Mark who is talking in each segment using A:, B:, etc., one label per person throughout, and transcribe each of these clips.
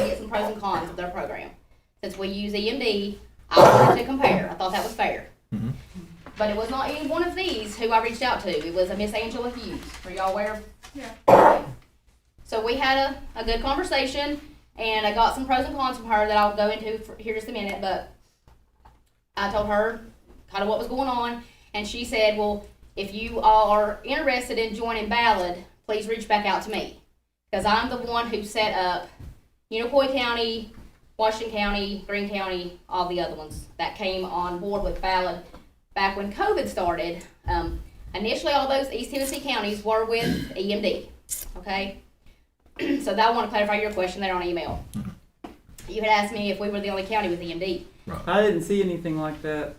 A: pros and cons of their program. Since we use EMD, I wanted to compare. I thought that was fair.
B: Mhm.
A: But it was not any one of these who I reached out to. It was a Miss Angela Hughes. Are y'all aware of so we had a, a good conversation, and I got some pros and cons from her that I'll go into for, here just a minute. But I told her kind of what was going on, and she said, "Well, if you all are interested in joining Ballad, please reach back out to me because I'm the one who set up Unicoi County, Washington County, Green County, all the other ones that came on board with Ballad back when COVID started. Um, initially, all those East Tennessee counties were with EMD. Okay." so that I want to clarify your question there on email.
C: Mm-hmm.
A: You had asked me if we were the only county with E EMD.
C: I didn't see anything like that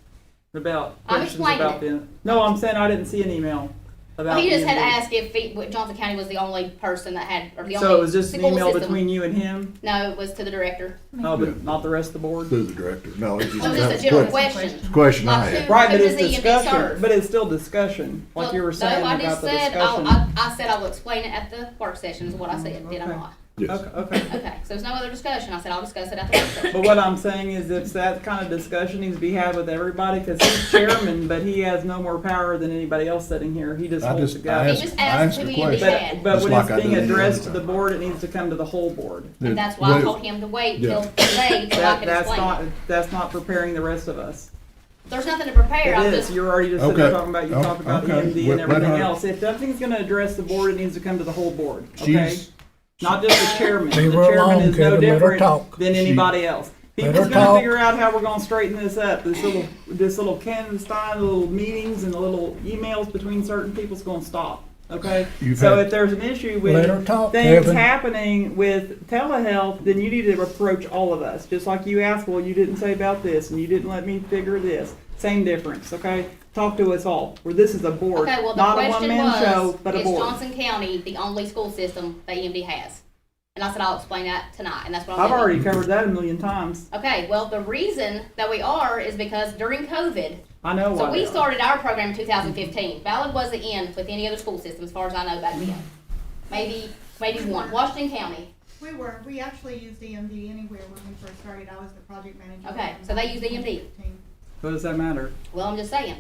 C: about
A: I'm
C: questions
A: explaining
C: about the. No, I'm saying I didn't see an email about.
A: Well, he just had
C: the-
A: asked if he, what Johnson County was the only person that had, or the only
C: So it was just an
A: school
C: email
A: system.
C: between you and him,
A: No, it was to the director.
C: oh,
D: Yeah.
C: but not the rest of the board.
D: Through the director. No, it's
A: It was
D: just,
A: Oh, just a
D: that's
A: general
D: a que-
A: question.
D: question I
A: Like,
D: had.
A: who-
C: Right,
A: who
C: but it's
A: does EMD
C: discussion.
A: serve?
C: But it's still discussion, like
A: Well,
C: you were
A: no,
C: saying
A: I
C: about
A: just
C: the
A: said
C: discussion.
A: I'll, I, I said I will explain it at the work session. Is what I said. Did I
C: Okay.
A: not?
D: Yes.
C: Okay, okay.
A: Okay. So there's no other discussion. I said I'll discuss it at the work session.
C: But what I'm saying is it's that kind of discussion needs to be had with everybody because he's chairman, but he has no more power than anybody else sitting here. He just
D: I
C: holds
D: just-
C: the
D: I
C: gavel.
A: He just
D: I
A: asked who
D: the
A: EMD
D: question.
A: had.
C: But, but
D: Just
C: when
D: like
C: it's
D: I
C: being
D: did the other
C: addressed to the
D: time.
C: board, it needs to come to the whole board.
A: And that's why I
D: Wait,
A: told him to wait
D: Yeah.
A: till today till I
C: That,
A: could
C: that's
A: explain.
C: not,
A: it.
C: that's not preparing the rest of us.
A: There's nothing to prepare. I'm
C: It
A: just
C: is, you're already just sitting there
D: Okay.
C: talking about, you
D: Oh,
C: talk about
D: okay.
C: EMD
D: Wait,
C: and
D: wait,
C: everything
D: hold on.
C: else. If nothing's gonna address the board, it needs to come to the whole board, okay?
E: She's,
C: Not just the chairman. The
E: Leave her
C: chairman
E: alone,
C: is no
E: Kevin. Let her
C: different
E: talk.
C: than anybody else.
E: Let her
C: People's gonna
E: talk.
C: figure out how we're gonna straighten this up. This little, this little Kanzenstein, little meetings and the little emails between certain people's gonna stop, okay?
D: You've
C: So
D: had-
C: if there's an issue
E: Let her
C: with
E: talk,
C: things
E: Kevin.
C: happening with telehealth, then you need to approach all of us, just like you asked, well, you didn't say about this and you didn't let me figure this. Same difference, okay? Talk to us all, where this is a board,
A: Okay, well,
C: not
A: the
C: a
A: question
C: one-man
A: was,
C: show, but a
A: is
C: board.
A: Johnson County the only school system that EMD has? And I said, I'll explain that tonight, and that's what I'm
C: I've
A: doing.
C: already covered that a million times.
A: Okay, well, the reason that we are is because during COVID,
C: I know why
A: so we
C: they are.
A: started our program in 2015. Ballard wasn't in with any other school system, as far as I know back then. Maybe, maybe one, Washington County.
F: We were, we actually used EMD anywhere when we first started, I was the project manager.
A: Okay, so they used E EMD.
C: What does that matter?
A: Well, I'm just saying.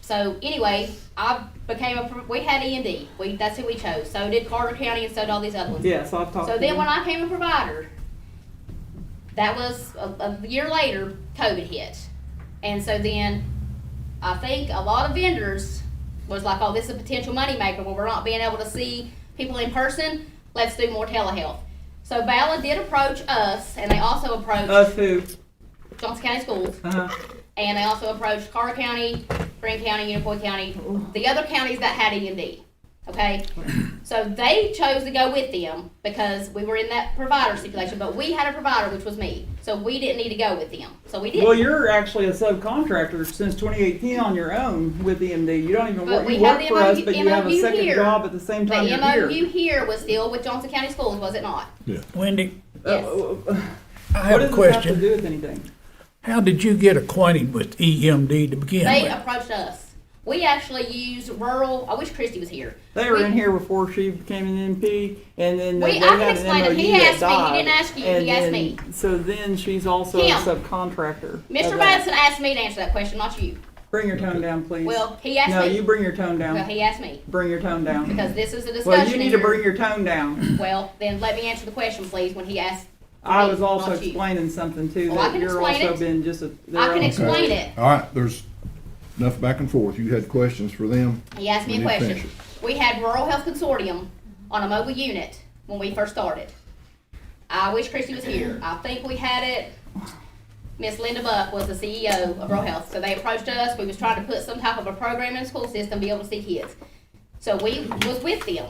A: So anyway, I became a, pro- we had EMD. We, that's who we chose. So did Carter County and so did all these other ones.
C: Yeah, so I've talked
A: So
C: to
A: then
C: them.
A: when I became a provider, that was a, a year later, COVID hit. And so then I think a lot of vendors was like, oh, this is a potential moneymaker. Well, we're not being able to see people in person. Let's do more telehealth. So Ballard did approach us, and they also approached
C: Us Uh, who?
A: Johnson County Schools,
C: Uh-huh.
A: and they also approached Carter County, Green County, Unicoi County, the other counties that had EMD. Okay, so they chose to go with them because we were in that provider stipulation, but we had a provider, which was me, so we didn't need to go with them. So we did.
C: Well, you're actually a subcontractor since 2018 on your own with EMD. You don't even
A: But
C: work,
A: we
C: you
A: have the
C: work for us,
A: MOU
C: but you have a second
A: here.
C: job at the same time
A: the
C: you're
A: MOU
C: here.
A: here. was still with Johnson County Schools, was it not?
E: Wendy,
C: Uh, uh, uh,
E: I
C: What does
E: have a
C: this have to
E: question.
C: do with anything?
E: How did you get acquainted with EMD to begin
A: They
E: with?
A: approached us. We actually used rural. I wish Christy was here.
C: They were
A: We-
C: in here before she became an MP, and then
A: We-
C: they
A: I can
C: had an
A: explain it.
C: MOU
A: He
C: that
A: asked me. He
C: died,
A: didn't ask you. He
C: and
A: asked
C: then-
A: me.
C: So then she's also a
A: Him.
C: subcontractor. of
A: Mr.
C: that.
A: Madison asked me to answer that question, not you.
C: Bring your tone down, please.
A: Well, he asked
C: No,
A: me.
C: you bring your tone
A: well,
C: down.
A: he asked me
C: Bring your tone down.
A: because this is a discussion.
C: Well, you need to
A: and you're-
C: bring your tone down.
A: Well, then let me answer the question, please, when he asked.
C: I
A: me,
C: was also
A: not you.
C: explaining something too,
A: Well, Oh, I
C: that
A: can
C: you're
A: explain
C: also
A: it.
C: been just a.
A: I can
C: their own-
A: explain it.
D: All right, there's enough back and forth. You had questions for them.
A: He asked me a
D: We need to
A: question.
D: finish
A: We had Rural Health Consortium on a mobile unit when we first started. I wish Christy was here. I think we had it, Miss Linda Buck was the CEO of Rural Health, so they approached us. We was trying to put some type of a program in the school system, be able to see kids. So we was with them,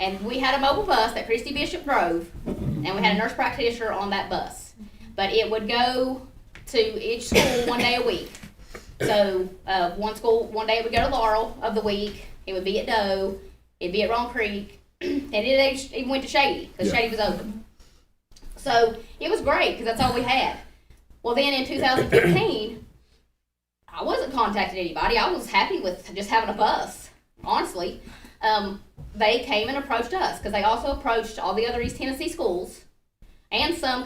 A: and we had a mobile bus that Christy Bishop drove, and we had a nurse practitioner on that bus. But it would go to each school one day a week. So uh, one school, one day it would go to Laurel of the week. It would be at Doe. It'd be at Wrong Creek, and it even went to Shady because
D: Yeah.
A: Shady was open. So it was great because that's all we had. Well, then in 2015, I wasn't contacting anybody. I was happy with just having a bus, honestly. Um, they came and approached us because they also approached all the other East Tennessee schools and some